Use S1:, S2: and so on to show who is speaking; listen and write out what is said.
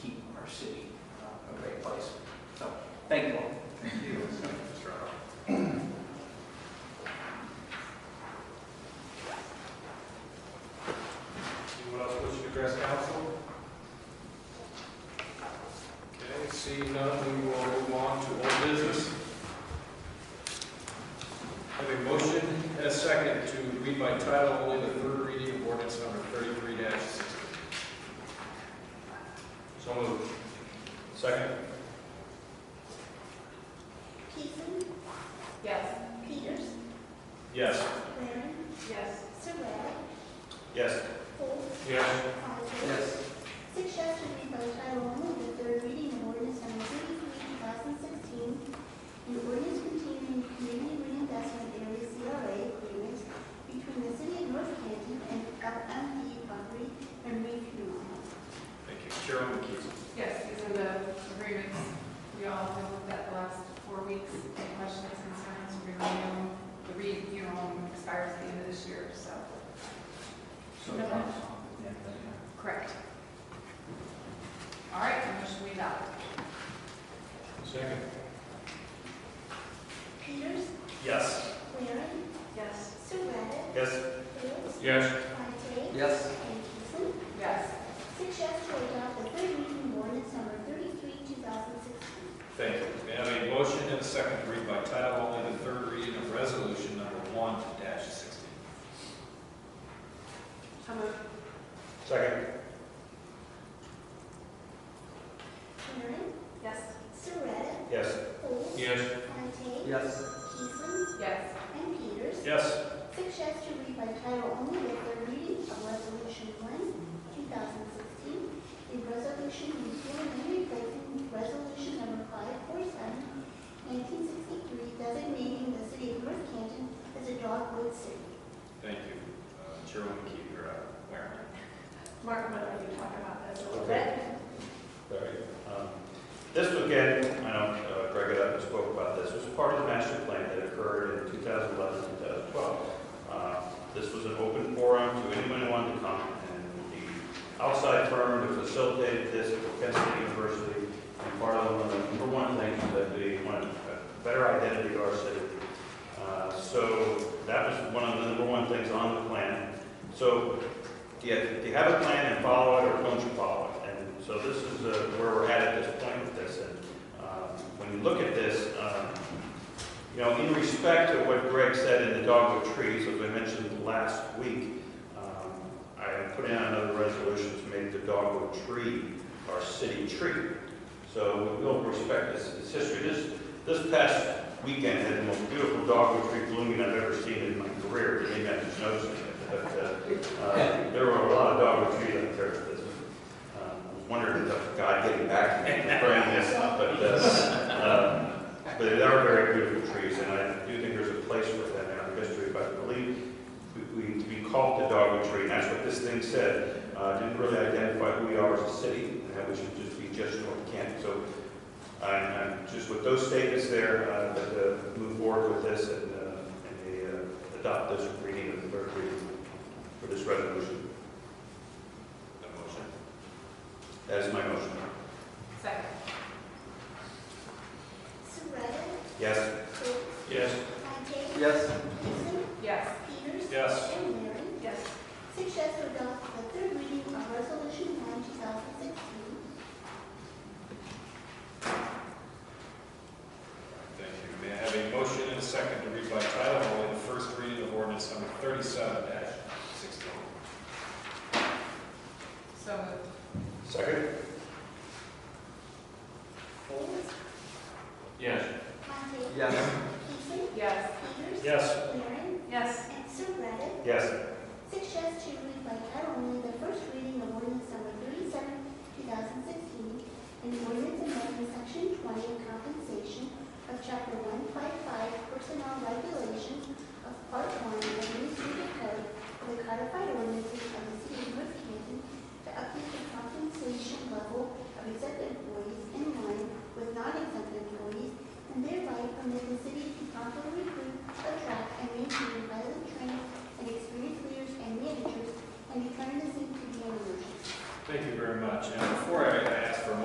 S1: uh,
S2: Seeing none, we will move on to old business. Have a motion and a second to read by title only the third reading of ordinance number thirty-three sixty. So moved. Second.
S3: Peterson,
S4: Yes.
S3: Peters,
S2: Yes.
S3: Waring,
S4: Yes.
S3: Surratt,
S2: Yes.
S3: Golds,
S2: Yes.
S3: Coniston. Six shall to read by title only the third reading of ordinance number thirty-three, two thousand sixteen, an ordinance containing community reinvestment area CRA agreement between the city of North Canton and LMP Property and Refuel.
S2: Thank you. Chairman McKee.
S4: Yes, these are the agreements. We all have looked at the last four weeks. Any questions, concerns, we renew. The re, you know, expires at the end of this year, so.
S1: So,
S4: No.
S1: yeah,
S4: Correct. All right, motion we adopt.
S2: Second.
S3: Peters,
S2: Yes.
S3: Waring,
S4: Yes.
S3: Surratt,
S2: Yes.
S3: Golds,
S2: Yes.
S3: Coniston,
S1: yes,
S3: and Peterson.
S4: Yes.
S3: Six yes to adopt the third reading of ordinance number thirty-three, two thousand sixteen.
S2: Thank you. May I have a motion and a second to read by title only the third reading of resolution number one sixteen.
S4: So moved.
S2: Second.
S3: Waring,
S4: Yes.
S3: Surratt,
S2: Yes.
S3: Folds,
S2: Yes.
S3: Fontaine,
S1: yes,
S3: Peterson,
S4: Yes.
S3: and Peters.
S2: Yes.
S3: Six yes to read by title only the third reading of resolution one, two thousand sixteen, a resolution repealing and replacing resolution number five four seven, nineteen sixty-three, designating the city of North Canton as a dogwood city.
S2: Thank you. Uh, Chairman McKee, you're up. Where?
S4: Mark, why don't you talk about this a little bit?
S5: Okay. Very. Um, This was again, I know uh, Greg got up and spoke about this, was part of the master plan that occurred in 2011, 2012. Uh, This was an open forum to anyone who wanted to come, and the outside firm that facilitated this was Kent State University. And part of one of the number one thing was that they wanted a better identity of our city. Uh, So that was one of the number one things on the plan. So do you, do you have a plan and follow it, or don't you follow it? And so this is uh, where we're at at this point with this, and um, when you look at this, um, you know, in respect to what Greg said in the dogwood trees, as I mentioned last week, um, I am putting out another resolution to make the dogwood tree our city tree. So we will respect this, this history. This, this past weekend had the most beautiful dogwood tree blooming I've ever seen in my career, maybe I just noticed it, but uh, uh, There were a lot of dogwood trees out there. this, um, I was wondering if God getting back to me for bringing this up, but, uh, um, but they are very beautiful trees, and I do think there's a place for them in our history, but I believe we- we, we called the dogwood tree, and that's what this thing said. Uh, Didn't really identify who we are as a city, and that we should just be just North Canton. So I'm, I'm just with those statements there, uh, that, uh, move forward with this and, uh, and they, uh, adopt this reading of the third reading for this resolution.
S2: The motion.
S5: That is my motion.
S4: Second.
S3: Surratt,
S5: Yes?
S3: Golds,
S2: Yes.
S3: Fontaine,
S1: yes,
S3: Peterson,
S4: Yes.
S3: Peters.
S2: Yes.
S3: And Waring.
S4: Yes.
S3: Six yes to adopt the third reading of Resolution 1, 2016.
S2: Thank you. May I have a motion and a second to read by title only the first reading of ordinance number thirty-seven sixteen.
S4: So moved.
S5: Second?
S3: Folds,
S2: Yes.
S3: Montague,
S1: yes,
S3: Peterson,
S4: Yes.
S3: Peters,
S2: Yes.
S3: Waring,
S4: Yes.
S3: and Surratt.
S5: Yes.
S3: Six yes to read by title only the first reading of ordinance number 37, 2016, and ordinance amending Section 20 compensation of Chapter 155 Personnel Regulations of Part 1 of the Administrative Code of the Codified